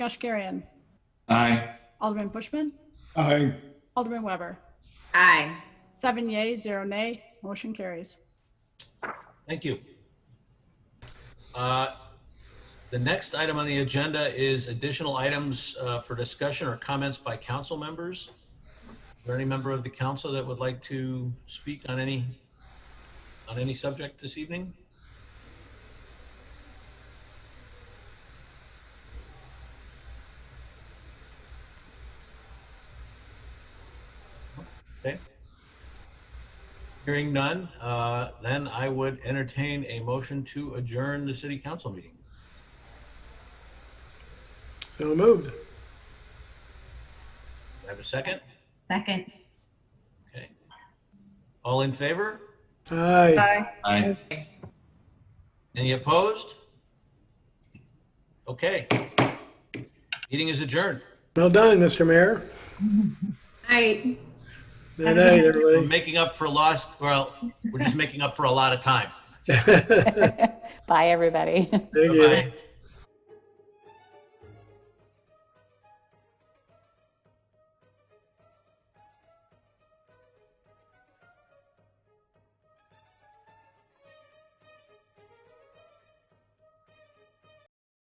Kashkarian. Aye. Alderman Bushman. Aye. Alderman Weber. Aye. Seven yea, zero nay. Motion carries. Thank you. Uh, The next item on the agenda is additional items uh, for discussion or comments by council members. Is there any member of the council that would like to speak on any, on any subject this evening? Okay. Hearing none, uh, then I would entertain a motion to adjourn the city council meeting. So moved. Do I Have a second? Second. Okay. All in favor? Aye. Aye. Any opposed? Okay. Meeting is adjourned. Well done, Mr. Mayor. Aye. Good night, We're everybody. making up for lost, well, we're just making up for a lot of time. Bye, everybody. Thank you. Bye-bye.